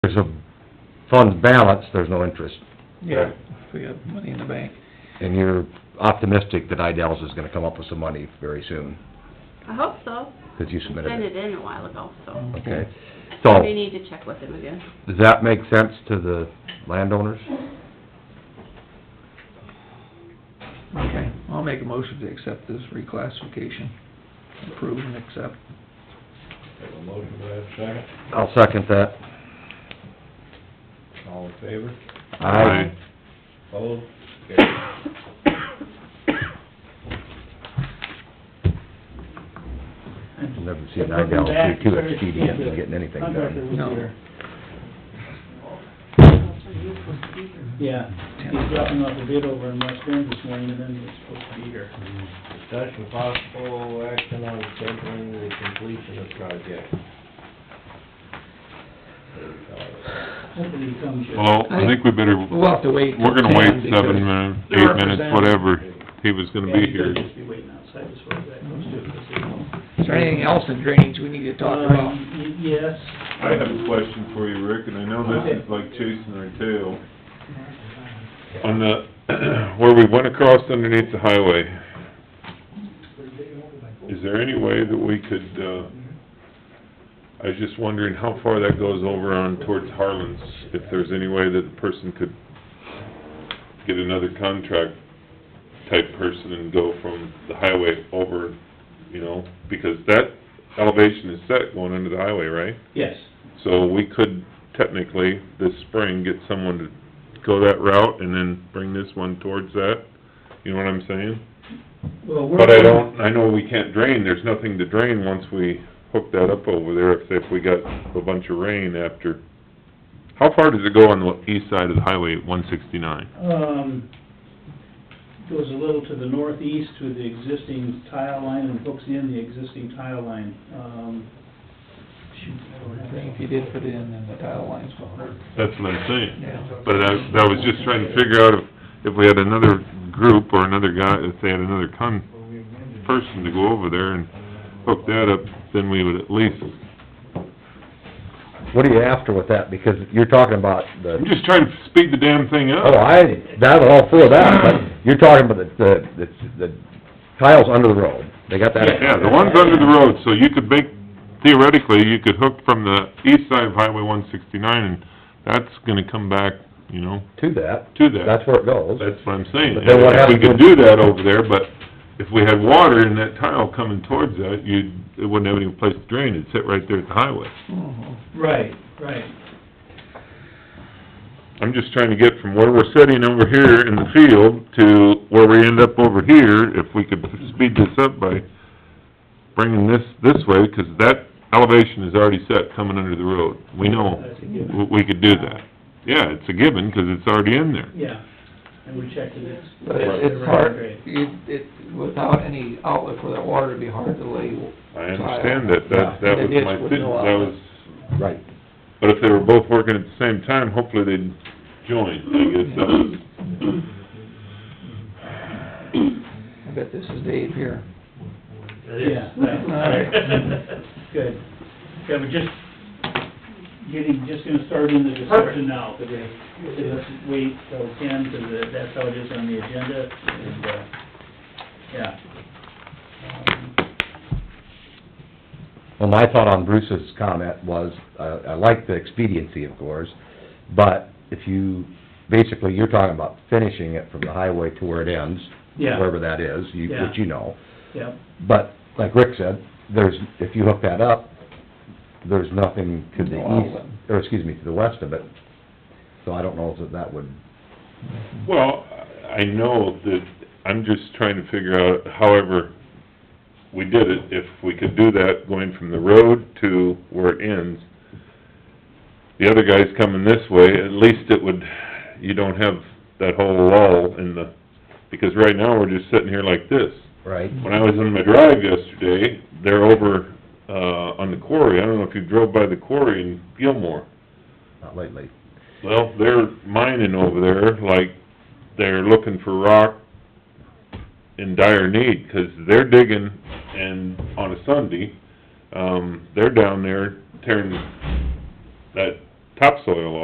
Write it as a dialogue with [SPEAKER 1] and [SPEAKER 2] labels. [SPEAKER 1] there's a fund balance, there's no interest.
[SPEAKER 2] Yeah, if we have money in the bank.
[SPEAKER 1] And you're optimistic that Idell's is gonna come up with some money very soon,
[SPEAKER 3] I hope so.
[SPEAKER 1] because you
[SPEAKER 3] I
[SPEAKER 1] submitted
[SPEAKER 3] sent
[SPEAKER 1] it.
[SPEAKER 3] it in a while ago, so
[SPEAKER 1] Okay.
[SPEAKER 3] I
[SPEAKER 1] So,
[SPEAKER 3] may need to check with him again.
[SPEAKER 1] does that make sense to the landowners?
[SPEAKER 2] Okay, I'll make a motion to accept this reclassification. Approve and accept.
[SPEAKER 4] Have a motion, do I have a second?
[SPEAKER 1] I'll second that.
[SPEAKER 4] All in favor?
[SPEAKER 1] Aye.
[SPEAKER 4] Opposed? Carried.
[SPEAKER 1] Never seen Idell be too expedient in getting anything done.
[SPEAKER 2] No.
[SPEAKER 5] Yeah, he's dropping off a bid over in West Bend this morning, and then he's supposed to be here.
[SPEAKER 4] Discussion possible action on scheduling the completion of project.
[SPEAKER 5] Hopefully he comes here.
[SPEAKER 6] Oh,
[SPEAKER 7] Well, I think we better,
[SPEAKER 2] We'll have to wait. till
[SPEAKER 7] we're gonna wait
[SPEAKER 2] 10 because
[SPEAKER 7] seven minutes,
[SPEAKER 2] the
[SPEAKER 7] eight minutes,
[SPEAKER 2] representative-
[SPEAKER 7] whatever, he was gonna
[SPEAKER 5] Yeah, he
[SPEAKER 7] be
[SPEAKER 5] could
[SPEAKER 7] here.
[SPEAKER 5] just be waiting outside as far as that goes, too, 'cause they don't-
[SPEAKER 2] Is there anything else in drainage we need to talk about?
[SPEAKER 5] Um, y- Yes.
[SPEAKER 6] I have a question for you, Rick, and I know this is like chasing our tail.
[SPEAKER 7] On the, where we went across underneath the highway, is there any way that we could, uh, I was just wondering how far that goes over on towards Harlan's, if there's any way that the person could get another contract type person and go from the highway over, you know, because that elevation is set going into the highway, right?
[SPEAKER 5] Yes,
[SPEAKER 7] So we could technically, this spring, get someone to go that route and then bring this one towards that, you know what I'm saying?
[SPEAKER 5] well, we're.
[SPEAKER 7] But I don't, I know we can't drain, there's nothing to drain once we hook that up over there, if, if we got a bunch of rain after. How far does it go on the east side of the highway, one sixty-nine?
[SPEAKER 5] Um, goes a little to the northeast with the existing tile line and hooks in the existing tile line. Um, shoot, I don't have that.
[SPEAKER 2] If you did put it in, then the tile lines will hurt.
[SPEAKER 7] That's what I'm saying.
[SPEAKER 2] Yeah.
[SPEAKER 7] But I, I was just trying to figure out if, if we had another group or another guy, if they had another con, person to go over there and hook that up, then we would at least,
[SPEAKER 1] What are you after with that? Because you're talking about the,
[SPEAKER 7] I'm just trying to speed the damn thing
[SPEAKER 1] oh,
[SPEAKER 7] up.
[SPEAKER 1] I, that, all for that, but you're talking about the, the, the tiles under the road. They got that?
[SPEAKER 7] Yeah, the one's under the road, so you could make, theoretically, you could hook from the east side of Highway one sixty-nine, and that's gonna come back, you know,
[SPEAKER 1] To that.
[SPEAKER 7] to that.
[SPEAKER 1] That's where it goes.
[SPEAKER 7] That's what I'm saying.
[SPEAKER 1] But then what
[SPEAKER 7] If we
[SPEAKER 1] happens
[SPEAKER 7] could do that over there, but if we had water and that tile coming towards that, you'd, it wouldn't have any place to drain, it'd sit right there at the highway.
[SPEAKER 2] Mhm.
[SPEAKER 5] Right, right.
[SPEAKER 7] I'm just trying to get from where we're sitting over here in the field to where we end up over here, if we could speed this up by bringing this this way, 'cause that elevation is already set coming under the road. We know,
[SPEAKER 5] That's a given.
[SPEAKER 7] we- we could do that. Yeah, it's a given, 'cause it's already in there.
[SPEAKER 5] Yeah, and we checked it, it's.
[SPEAKER 2] But it's, it's hard, it, it, without any outlet for that water, it'd be hard to lay.
[SPEAKER 7] I understand that, that, that was my, thi- that was,
[SPEAKER 1] Right.
[SPEAKER 7] but if they were both working at the same time, hopefully they'd join, I guess, that was,
[SPEAKER 2] I bet this is Dave here.
[SPEAKER 5] Yeah, right. Good. Yeah, we're just getting, just gonna start in the discussion now, because let's wait till ten, because that's how it is on the agenda, and, uh, yeah. Um,
[SPEAKER 1] Well, my thought on Bruce's comment was, uh, I like the expediency, of course, but if you, basically, you're talking about finishing it from the highway to where it ends,
[SPEAKER 5] Yeah,
[SPEAKER 1] wherever that is, you,
[SPEAKER 5] Yeah.
[SPEAKER 1] which you know.
[SPEAKER 5] yeah,
[SPEAKER 1] But, like Rick said, there's, if you hook that up, there's nothing to the
[SPEAKER 2] No outlet.
[SPEAKER 1] east, or excuse me, to the west of it. So I don't know if that would,
[SPEAKER 7] Well, I know that, I'm just trying to figure out, however, we did it, if we could do that, going from the road to where it ends. The other guy's coming this way, at least it would, you don't have that whole lull in the, because right now, we're just sitting here like this.
[SPEAKER 1] right?
[SPEAKER 7] When I was on my drive yesterday, they're over, uh, on the quarry, I don't know if you drove by the quarry in Gilmore.
[SPEAKER 1] Not lately.
[SPEAKER 7] Well, they're mining over there, like, they're looking for rock in dire need, 'cause they're digging, and on a Sunday, um, they're down there tearing that topsoil